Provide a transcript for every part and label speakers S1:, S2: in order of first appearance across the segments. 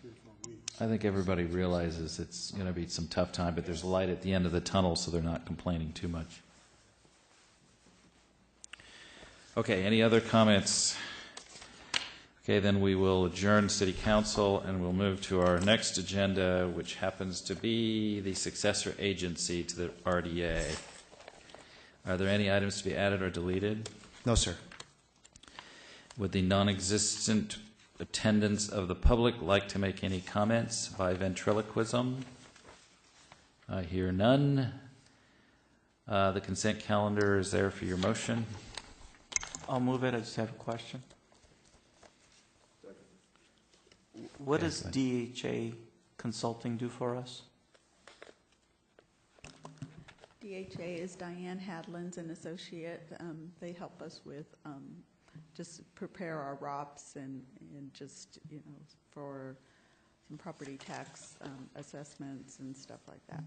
S1: three or four weeks.
S2: I think everybody realizes it's going to be some tough time, but there's light at the end of the tunnel, so they're not complaining too much. Okay, any other comments? Okay, then we will adjourn city council and we'll move to our next agenda, which happens to be the successor agency to the RDA. Are there any items to be added or deleted?
S3: No, sir.
S2: Would the non-existent attendance of the public like to make any comments by ventriloquism? I hear none. Uh, The consent calendar is there for your motion.
S4: I'll move it, I just have a question. What
S2: Okay,
S4: does
S2: go
S4: DHA Consulting do for us?
S5: DHA is Diane Hadlands and Associate. Um, They help us with, um, just prepare our ROPS and, and just, you know, for some property tax um, assessments and stuff like that.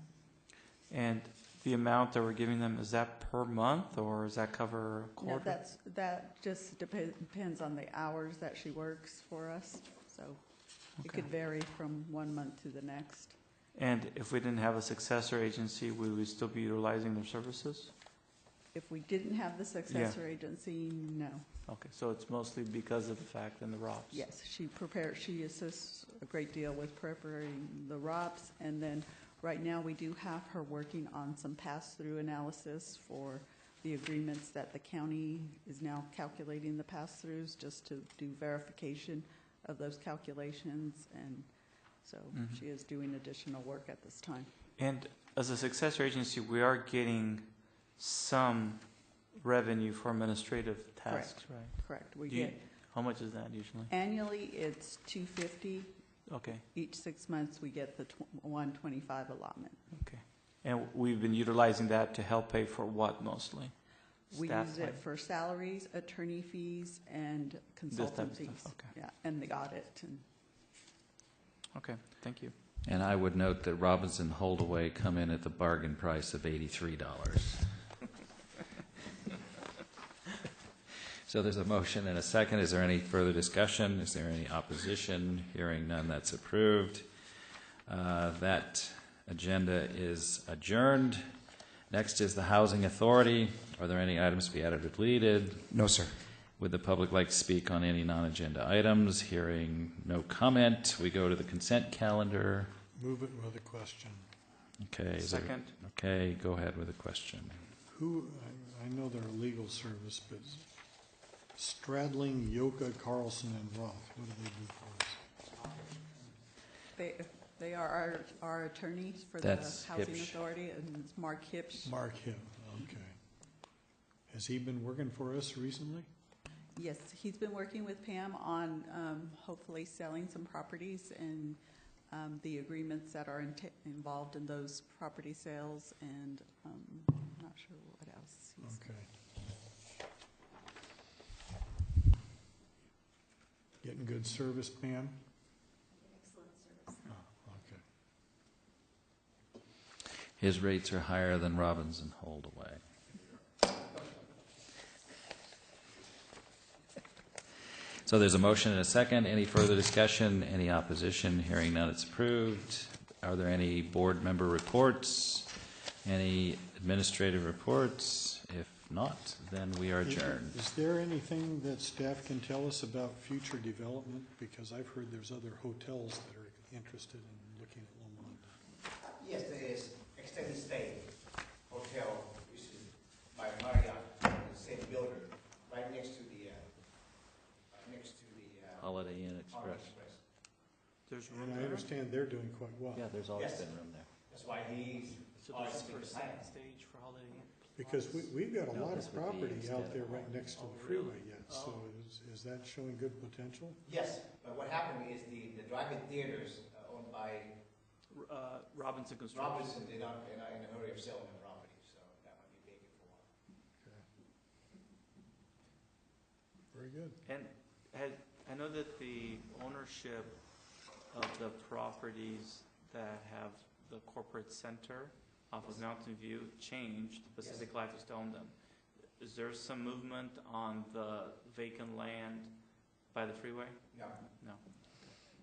S4: And the amount that we're giving them, is that per month, or does that cover a
S5: No,
S4: quarter?
S5: that's, that just depe- depends on the hours that she works for us, so it
S4: Okay.
S5: could vary from one month to the next.
S4: And if we didn't have a successor agency, would we still be utilizing their services?
S5: If we didn't have the successor agency, no.
S4: Okay, so it's mostly because of the fact and the ROPS?
S5: Yes, she prepares, she assists a great deal with preparing the ROPS, and then, right now, we do have her working on some pass-through analysis for the agreements that the county is now calculating the pass-throughs, just to do verification of those calculations, and so
S4: Mhm.
S5: she is doing additional work at this time.
S4: And as a successor agency, we are getting some revenue for administrative tasks, right?
S5: Correct, we
S4: Do you-
S5: get,
S4: How much is that usually?
S5: annually, it's two fifty,
S4: Okay.
S5: each six months, we get the one twenty-five allotment.
S4: And we've been utilizing that to help pay for what mostly?
S5: We
S4: Staff
S5: use it
S4: time?
S5: for salaries, attorney fees, and
S4: This type
S5: consultant
S4: of
S5: fees.
S4: stuff, okay.
S5: Yeah, and the audit, and
S4: Okay, thank you.
S2: And I would note that Robinson Holdaway come in at the bargain price of $83. So there's a motion and a second. Is there any further discussion? Is there any opposition? Hearing none, that's approved. Uh, That agenda is adjourned. Next is the Housing Authority. Are there any items to be added or deleted?
S3: No, sir.
S2: Would the public like to speak on any non-agenda items? Hearing no comment, we go to the consent calendar.
S1: Move it with a question.
S2: Okay. is there-
S4: Second,
S2: Okay, go ahead with the question.
S1: Who, I, I know they're a legal service, but Stradling, Yoka, Carlson, and Roth, what do they do for us?
S5: they, they are our, our attorneys for the
S2: That's
S5: Housing
S2: Hipsch.
S5: Authority, and it's Mark Hipsch.
S1: Mark him, okay. Has he been working for us recently?
S5: Yes, he's been working with Pam on, um, hopefully selling some properties and, um, the agreements that are inte- involved in those property sales, and, um, I'm not sure what else he's
S1: Okay. Getting good service, Pam? Excellent service. Okay.
S2: His rates are higher than Robinson Holdaway. So there's a motion and a second. Any further discussion? Any opposition? Hearing none, it's approved. Are there any board member reports? Any administrative reports? If not, then we are
S1: Is-
S2: adjourned.
S1: Is there anything that staff can tell us about future development? Because I've heard there's other hotels that are interested in looking at Loma Linda.
S6: Yes, there is extended stay hotel, which is by Marriott, the same builder, right next to the, uh, uh, next to the, uh,
S2: Holiday Inn
S6: Holiday
S2: Express.
S6: Express.
S4: there's room
S1: And I
S4: there.
S1: understand they're doing quite well.
S2: Yeah, there's always
S6: Yes.
S2: been room there.
S6: That's why he's,
S4: So
S6: Oh,
S4: there's
S6: it's
S4: a
S6: big
S4: percent
S6: plan.
S4: stage for Holiday Inn.
S1: Because we, we've got a
S2: No,
S1: lot
S2: this
S1: of
S2: would be
S1: property
S2: instead
S1: out
S2: of
S1: there
S2: all-
S1: right next to
S4: oh,
S1: the freeway
S4: really?
S1: yet, so is, is that showing good potential?
S6: yes, but what happened is the, the drive-in theaters uh, owned by
S4: R- uh, Robinson Construction.
S6: Robinson, they're not, they're not in a hurry of selling the property, so that might be vacant for a while.
S1: Very good.
S4: And had, I know that the ownership of the properties that have the corporate center off of Mountain View changed, but
S6: Yes.
S4: City Life has to own them. Is there some movement on the vacant land by the freeway?
S6: No,
S4: No.